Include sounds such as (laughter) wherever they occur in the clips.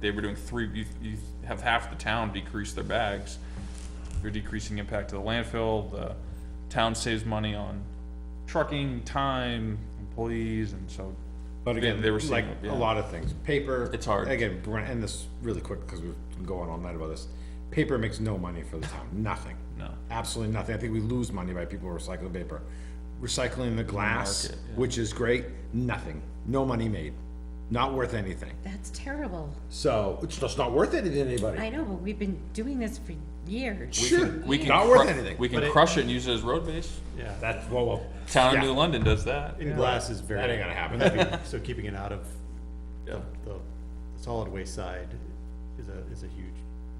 they were doing three, you, you have half the town decrease their bags. You're decreasing impact to the landfill, the town saves money on trucking, time, employees, and so. But again, they were seeing like it, yeah. a lot of things, paper. It's hard. Again, we're gonna end this really quick because we've been going all night about this. Paper makes no money for the town, nothing. No. Absolutely nothing. I think we lose money by people recycling paper. Recycling the glass, market, yeah. which is great, nothing. No money made. Not worth anything. That's terrible. So it's just not worth it to anybody. I know, but we've been doing this for years. Sure, We can not worth cru- anything. We But can it- crush it and use it as road base. Yeah, that, That's, well, well, Town of Yeah. New London does that. in glass glass is is very- That ain't gonna happen. (laughs) happen. So keeping it out of Yeah. the solid waste side is a, is a huge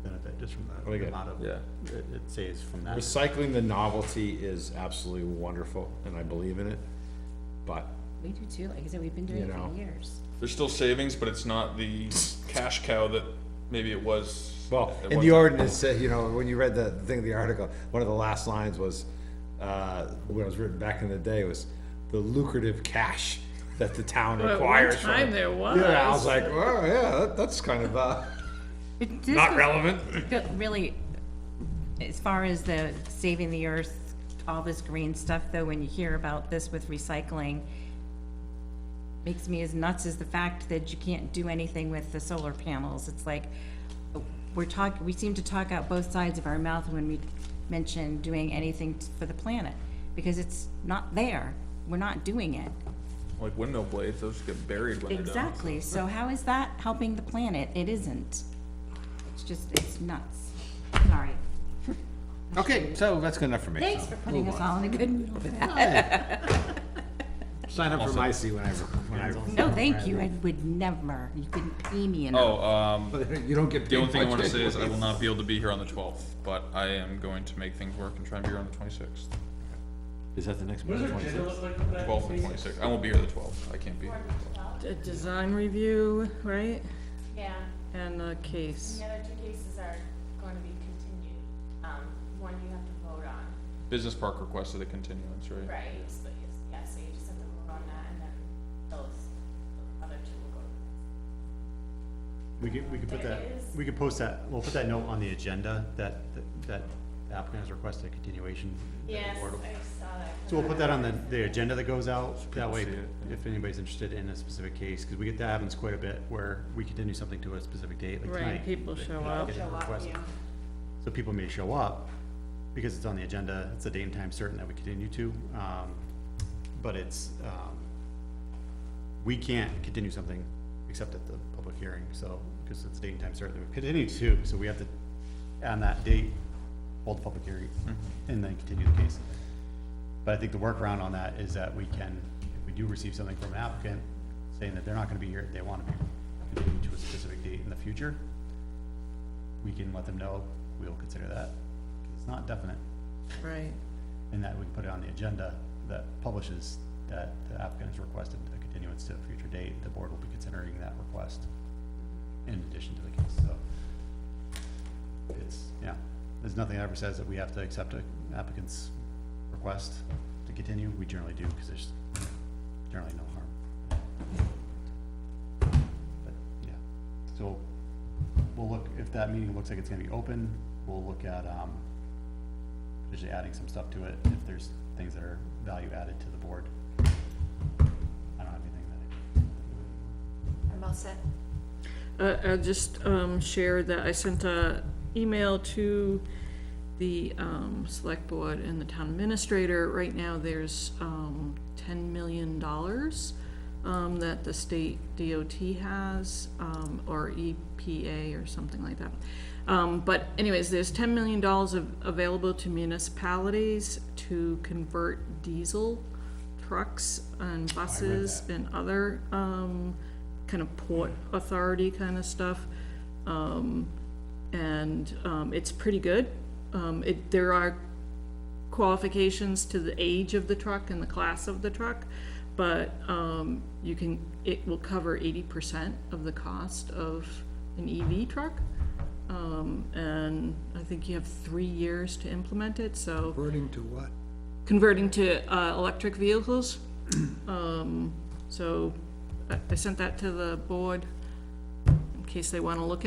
benefit, just from Oh, yeah. the amount of, Yeah. it it saves from that. recycling the novelty is absolutely wonderful and I believe in it. But, We do too, like I said, we've been doing You it know. for years. There's still savings, but it's not the cash cow that maybe it was. well, it in the was. ordinance, uh, you know, when you read the thing, the article, one of the last lines was, uh, when it was written back in the day was the lucrative cash that the town But at requires. one from- time there was. Yeah, I was like, oh, yeah, that- that's kind (laughs) of, uh, But this not was- relevant. but Really, as far as the saving the earth, all this green stuff though, when you hear about this with recycling, makes me as nuts as the fact that you can't do anything with the solar panels. It's like, we're talk, we seem to talk out both sides of our mouth when we mention doing anything t- for the planet, because it's not there. We're not doing it. Like windmill blades, those get buried when they're done. Exactly, so how is that helping the planet? It isn't. It's just, it's nuts. Sorry. Okay, so that's good enough for me. Thanks for putting us all in a good mood for that. Sign up for my seat whenever, whenever. No, thank you, I would never. You couldn't pay me enough. Oh, um, (laughs) You don't get. the only thing I paid want to much say is I will anyways. not be able to be here on the twelfth, but I am going to make things work and try and be here on the twenty-sixth. Is that the next one? Twelfth and twenty-sixth. I won't be here the twelfth. I can't be. here. A design review, right? Yeah, And a case. the other two cases are going to be continued. Um, one you have to vote on, Business Park requested a continuance, right? right? So yes, yeah, so you just have to vote on that and then those other two will go. We could, we could put that, we could post that, we'll put that note on the agenda that, that the applicant has requested a continuation. that the Yes, board will- I saw that. So we'll put that on the, the agenda that goes out, that way, see it, if anybody's interested in a specific case, because we get, that happens quite a bit, where we continue something to a specific date, like tonight. Right, people show They up. get a Show up, request. yeah. So people may show up, because it's on the agenda, it's a date and time certain that we continue to, um, but it's, um, we can't continue something except at the public hearing, so, because it's date and time certain, that we continue to, so we have to, on that date, hold the public hearing, and then continue the case. But I think the workaround on that is that we can, if we do receive something from an applicant saying that they're not gonna be here, they wanna be continued to a specific date in the future, we can let them know, we will consider that. 'Cause It's not definite, Right. and that we can put it on the agenda that publishes that the applicant has requested a continuance to a future date, the board will be considering that request in addition to the case, so. It's, yeah, there's nothing that ever says that we have to accept a applicant's request to continue, we generally do, because there's generally no harm. But, yeah, so we'll look, if that meeting looks like it's gonna be open, we'll look at, um, potentially adding some stuff to it, if there's things that are value added to the board. I don't have anything that I'm all set. Uh, I'll just, um, share that I sent a email to the, um, select board and the town administrator. Right now, there's, um, ten million dollars, um, that the state DOT has, um, or EPA or something like that. Um, but anyways, there's ten million dollars of, available to municipalities to convert diesel trucks and buses and other, um, kind of port authority kind of stuff. Um, and, um, it's pretty good. Um, it, there are qualifications to the age of the truck and the class of the truck, but, um, you can, it will cover eighty percent of the cost of an EV truck. Um, and I think you have three years to implement it, so. According to what? converting to uh, electric vehicles. Um, So I- I sent that to the board. case they wanna look